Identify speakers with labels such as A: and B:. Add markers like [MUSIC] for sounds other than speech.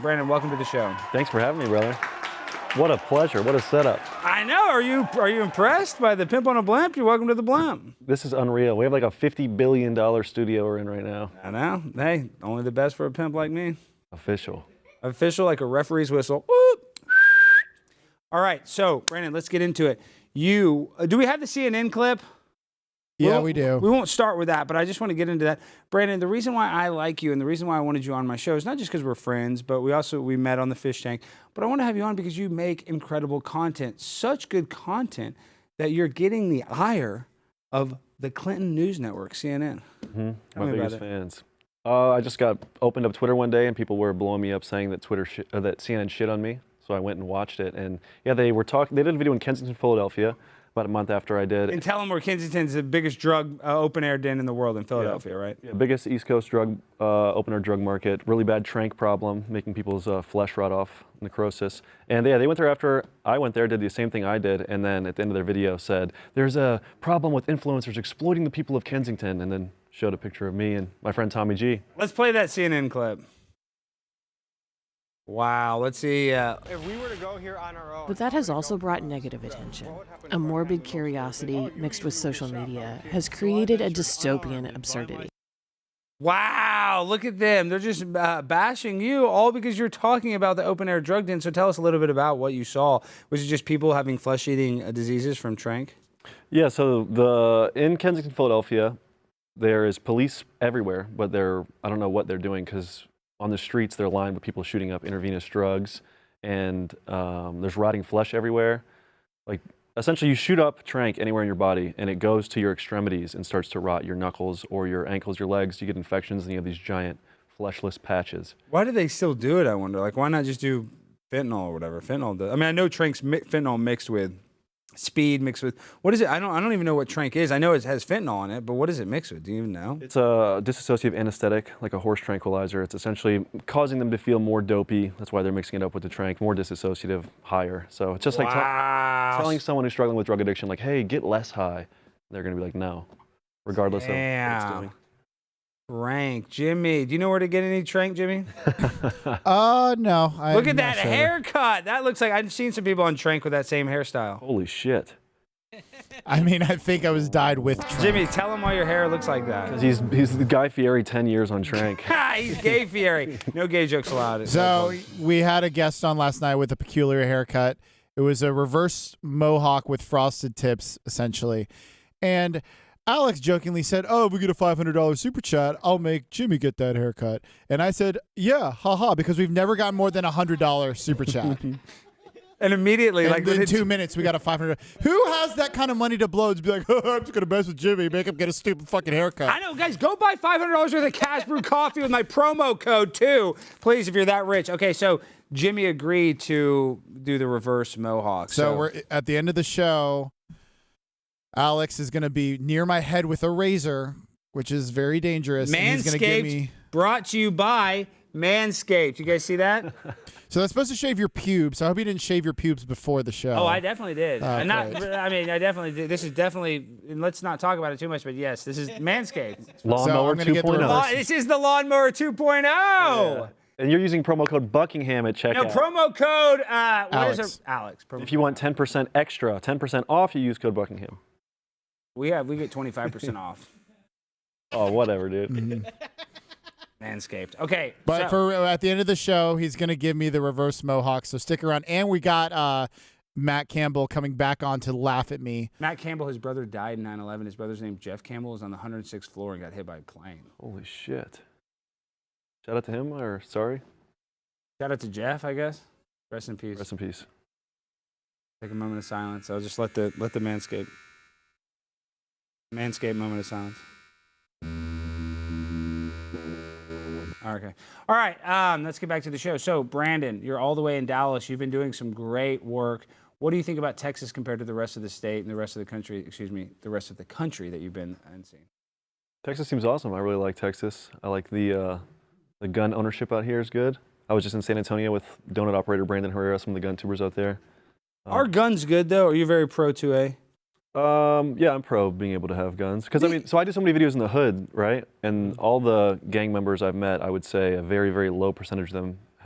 A: Brandon, welcome to the show.
B: Thanks for having me, brother. What a pleasure. What a setup.
A: I know. Are you are you impressed by the pimp on a blimp? You're welcome to the blimp.
B: This is unreal. We have like a $50 billion studio we're in right now.
A: I know. Hey, only the best for a pimp like me.
B: Official.
A: Official like a referee's whistle. Whoop. All right. So, Brandon, let's get into it. You uh, do we have the CNN clip?
C: Yeah,
A: won't-
C: we do.
A: We won't start with that, but I just want to get into that. Brandon, the reason why I like you and the reason why I wanted you on my show is not just because we're friends, but we also we met on the fish tank. But I want to have you on because you make incredible content, such good content that you're getting the ire of the Clinton News Network, CNN. Tell
B: My
A: me about
B: biggest
A: it.
B: fans. Uh, I just got opened up Twitter one day and people were blowing me up saying that Twitter shi- uh, that CNN shit on me. So I went and watched it and yeah, they were talking. They did a video in Kensington, Philadelphia, about a month after I did.
A: And tell them where Kensington's the biggest drug uh, open air den in the world in Philadelphia, right?
B: Yeah, biggest East Coast drug uh, opener drug market. Really bad trank problem, making people's uh, flesh rot off, necrosis. And yeah, they went there after I went there, did the same thing I did, and then at the end of their video said, "There's a problem with influencers exploiting the people of Kensington," and then showed a picture of me and my friend Tommy G.
A: Let's play that CNN clip. Wow. Let's see. Uh,
D: If we were to go here on our own,
E: But that has also brought negative attention. A morbid curiosity mixed with social media has created a dystopian absurdity.
A: Wow, look at them. They're just uh, bashing you all because you're talking about the open air drug den. So tell us a little bit about what you saw. Was it just people having flesh eating uh, diseases from Trank?
B: Yeah, so the in Kensington, Philadelphia, there is police everywhere, but they're I don't know what they're doing because on the streets they're lined with people shooting up intravenous drugs, and um, there's rotting flesh everywhere. Like essentially, you shoot up trank anywhere in your body, and it goes to your extremities and starts to rot your knuckles or your ankles, your legs. You get infections, and you have these giant fleshless patches.
A: Why do they still do it? I wonder. Like, why not just do fentanyl or whatever? Fentanyl. Does. I mean, I know Trank's mi- fentanyl mixed with speed, mixed with what is it? I don't. I don't even know what Trank is. I know it has fentanyl in it, but what is it mixed with? Do you even know?
B: It's a dissociative anesthetic, like a horse tranquilizer. It's essentially causing them to feel more dopey. That's why they're mixing it up with the trank, more dissociative, higher. So it's just like tell-
A: wow.
B: telling someone who's struggling with drug addiction, like, hey, get less high. They're going to be like, no, regardless of what it's
A: Damn.
B: doing.
A: Trank, Jimmy. Do you know where to get any Trank, Jimmy?
C: Uh, no. I
A: Look
C: am
A: at
C: not
A: that
C: sure.
A: haircut. That looks like I've seen some people on Trank with that same hairstyle.
B: [LAUGHS] Holy shit.
C: I mean, I think I was dyed with Trump.
A: Jimmy, tell them why your hair looks like that. [LAUGHS]
B: He's, he's the Guy Fieri 10 years on
C: [LAUGHS]
B: trank.
A: Ha, He's gay Fieri. No gay jokes allowed.
C: So we had a guest on last night with a peculiar haircut. It was a reverse mohawk with frosted tips, essentially. And Alex jokingly said, "Oh, if we get a five hundred dollars super chat, I'll make Jimmy get that haircut." And I said, "Yeah, haha," because we've never gotten more than a hundred
A: [LAUGHS]
C: dollar super chat.
A: and immediately,
C: And
A: like
C: in
A: within
C: two minutes, we got a five hundred. Who has that kind of money to blow? To be like, [LAUGHS] oh, I'm just gonna mess with Jimmy, make him get a stupid fucking haircut.
A: I know, guys. Go buy five hundred dollars worth of Cash Brew [LAUGHS] coffee with my promo code too, please. If you're that rich. Okay, so Jimmy agreed to do the reverse mohawk.
C: So we're at the end of the show. Alex is going to be near my head with a razor, which is very dangerous. and he's gonna
A: Manscaped
C: give me.
A: brought to you by Manscaped. You guys see that?
C: So that's supposed to shave your pubes. I hope you didn't shave your pubes before the show.
A: Oh, I definitely did.
C: Oh,
A: And not,
C: great.
A: I mean, I definitely did. This is definitely, and let's not talk about it too much, but yes, this is
C: [LAUGHS]
A: Manscaped.
B: Lawnmower oh.
C: gonna get the
B: 2.0.
A: Law- this is the Lawnmower 2.0.
B: And you're using promo code Buckingham at checkout.
A: No, promo code, uh, what is
C: Alex.
A: it? Alex. Promo
B: if you want 10% extra, 10% off, you use code Buckingham.
A: We have, we get 25% off
B: Oh, whatever,
C: Mm-hmm.
B: dude.
A: Manscaped. Okay.
C: But
A: so-
C: for at the end of the show, he's going to give me the reverse mohawk. So stick around. And we got uh, Matt Campbell coming back on to laugh at me.
A: Matt Campbell, his brother died in 9 11. His brother's name, Jeff Campbell, is on the 106th floor and got hit by a plane.
B: Holy shit. Shout out to him, or sorry.
A: Shout out to Jeff, I guess. Rest in peace.
B: Rest in peace.
A: Take a moment of silence. I'll just let the let the manscape. Manscape moment of silence. Okay. All right. Um, let's get back to the show. So, Brandon, you're all the way in Dallas. You've been doing some great work. What do you think about Texas compared to the rest of the state and the rest of the country? Excuse me, the rest of the country that you've been and seen.
B: Texas seems awesome. I really like Texas. I like the uh, the gun ownership out here is good. I was just in San Antonio with donut operator Brandon Herrera, some of the gun tubers out there. Um,
A: Are guns good though? Are you very pro 2A?
B: Um, yeah, I'm pro being able to have guns because I mean, so I do so many videos in the hood, right? And all the gang members I've met, I would say a very, very low percentage of them